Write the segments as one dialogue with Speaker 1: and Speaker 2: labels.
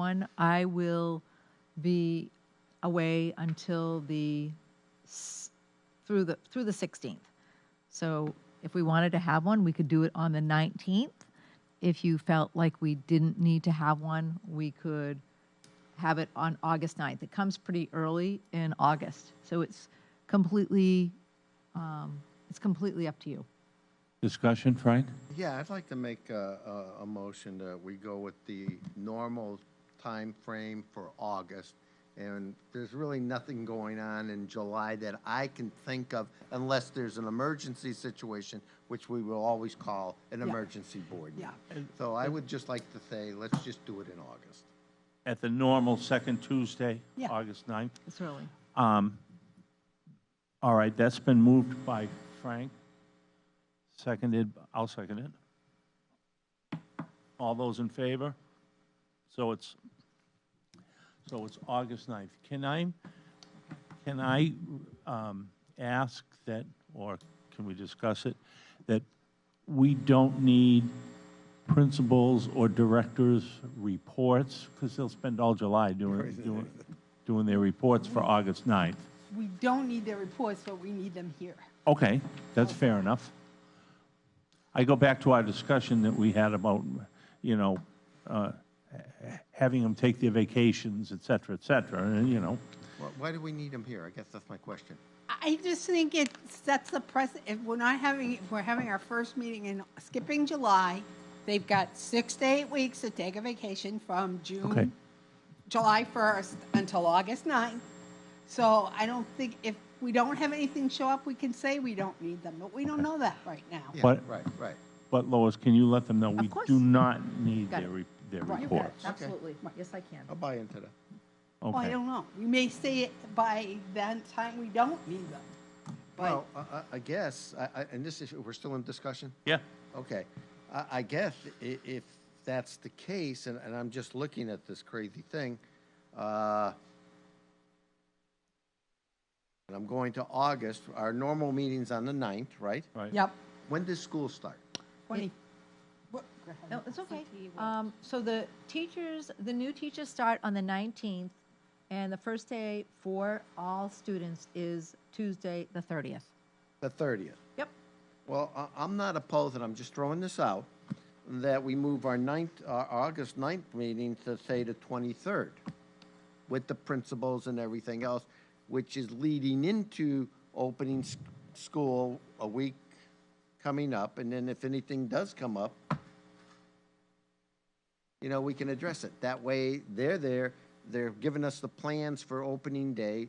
Speaker 1: One, I will be away until the, s- through the, through the 16th. So if we wanted to have one, we could do it on the 19th. If you felt like we didn't need to have one, we could have it on August 9th. It comes pretty early in August, so it's completely, um, it's completely up to you.
Speaker 2: Discussion, Frank?
Speaker 3: Yeah, I'd like to make a, a, a motion that we go with the normal time frame for August. And there's really nothing going on in July that I can think of unless there's an emergency situation, which we will always call an emergency board. Yeah. So I would just like to say, let's just do it in August.
Speaker 2: At the normal second Tuesday,
Speaker 1: Yeah.
Speaker 2: August 9th?
Speaker 1: It's early.
Speaker 2: All right, that's been moved by Frank, seconded, I'll second it. All those in favor? So it's, so it's August 9th. Can I, can I um, ask that, or can we discuss it, that we don't need principals or directors' reports, because they'll spend all July doing, doing- doing their reports for August 9th?
Speaker 4: We don't need their reports, but we need them here.
Speaker 2: Okay, that's fair enough. I go back to our discussion that we had about, you know, uh, having them take their vacations, et cetera, et cetera, and, you know,
Speaker 3: Why- Why do we need them here? I guess that's my question.
Speaker 4: I just think it sets the pres, if we're not having, if we're having our first meeting in, skipping July, they've got six to eight weeks to take a vacation from
Speaker 2: Okay.
Speaker 4: June, July 1st until August 9th. So I don't think, if we don't have anything show up, we can say we don't need them, but we don't know that right now.
Speaker 3: Yeah,
Speaker 2: But-
Speaker 3: Right, right.
Speaker 2: but Lois, can you let them know we
Speaker 1: course.
Speaker 2: do not need
Speaker 1: Got
Speaker 2: their,
Speaker 1: it.
Speaker 2: re- their
Speaker 4: Right. You
Speaker 1: You got it,
Speaker 2: reports?
Speaker 1: absolutely. Yes, I can.
Speaker 3: I'll buy into that.
Speaker 4: Well, I
Speaker 2: Okay,
Speaker 4: don't know. We may say it by that time we don't need them. But
Speaker 3: Well, I, I- I guess, I, I, and this is, we're still in discussion?
Speaker 2: yeah,
Speaker 3: Okay, I, I guess i- if that's the case, and, and I'm just looking at this crazy thing, uh, and I'm going to August, our normal meeting's on the 9th, right?
Speaker 2: right.
Speaker 4: Yep.
Speaker 3: When does school start?
Speaker 4: Twenty. What-
Speaker 1: No, it's okay. Um, so the teachers, the new teachers start on the 19th, and the first day for all students is Tuesday, the 30th.
Speaker 3: The 30th.
Speaker 1: Yep.
Speaker 3: Well, I, I'm not opposed, and I'm just throwing this out, that we move our ninth, our August 9th meeting to say the twenty-third with the principals and everything else, which is leading into opening s- school a week coming up, and then if anything does come up, you know, we can address it. That way, they're there, they're giving us the plans for opening day,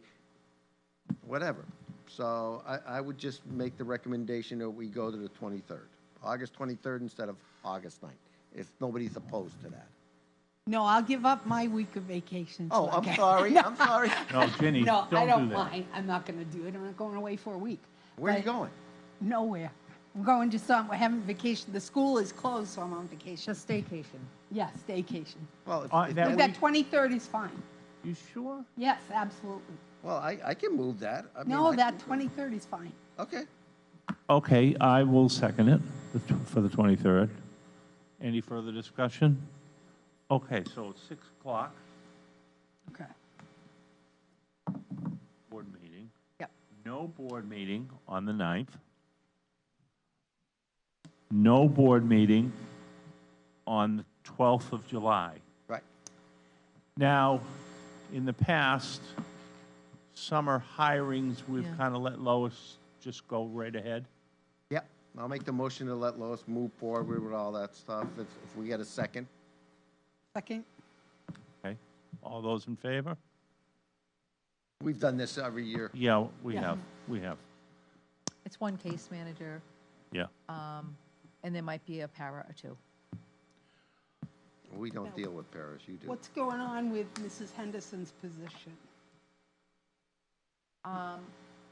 Speaker 3: whatever. So I, I would just make the recommendation that we go to the 23rd, August 23rd instead of August 9th, if nobody's opposed to that.
Speaker 4: No, I'll give up my week of vacation. so
Speaker 3: Oh,
Speaker 4: I
Speaker 3: I'm
Speaker 4: can-
Speaker 3: sorry, I'm sorry.
Speaker 2: No, Ginny,
Speaker 4: No,
Speaker 2: don't
Speaker 4: I
Speaker 2: do
Speaker 4: don't
Speaker 2: that.
Speaker 4: mind. I'm not gonna do it. I'm not going away for a week.
Speaker 3: Where are you
Speaker 4: But
Speaker 3: going?
Speaker 4: Nowhere. I'm going to some, we're having vacation. The school is closed, so I'm on vacation.
Speaker 1: Just staycation.
Speaker 4: Yes, staycation.
Speaker 3: Well, if-
Speaker 2: Uh, that
Speaker 3: if they-
Speaker 4: But that twenty-third is fine.
Speaker 2: You sure?
Speaker 4: Yes, absolutely.
Speaker 3: well, I, I can move that. I mean,
Speaker 4: No,
Speaker 3: I-
Speaker 4: that twenty-third is fine.
Speaker 3: Okay,
Speaker 2: Okay, I will second it the tw- for the 23rd. Any further discussion? Okay, so it's 6 o'clock,
Speaker 4: Okay.
Speaker 2: board meeting.
Speaker 1: Yep.
Speaker 2: No board meeting on the 9th. No board meeting on the 12th of July.
Speaker 3: right.
Speaker 2: Now, in the past, summer hirings, we've
Speaker 1: Yeah.
Speaker 2: kind of let Lois just go right ahead.
Speaker 3: Yep, I'll make the motion to let Lois move forward with all that stuff. If, if we get a second,
Speaker 4: Second,
Speaker 2: Okay, all those in favor?
Speaker 3: we've done this every year.
Speaker 2: Yeah, we
Speaker 4: Yeah.
Speaker 2: have, we have,
Speaker 1: It's one case manager, um,
Speaker 2: yeah.
Speaker 1: and there might be a para or two.
Speaker 3: We don't deal with Paris, you do.
Speaker 4: what's going on with Mrs. Henderson's position?
Speaker 1: Um,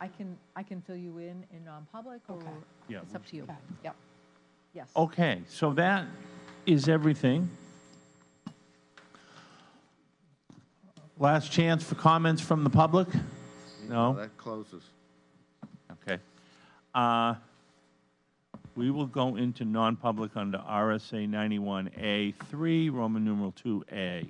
Speaker 1: I can, I can fill you in in non-public, or
Speaker 4: Okay.
Speaker 2: Yeah,
Speaker 1: it's up to you.
Speaker 4: Okay.
Speaker 1: Yep. Yes.
Speaker 2: Okay, so that is everything. Last chance for comments from the public? No?
Speaker 3: That closes.
Speaker 2: Okay. Uh, We will go into non-public under RSA 91A3, Roman numeral 2A.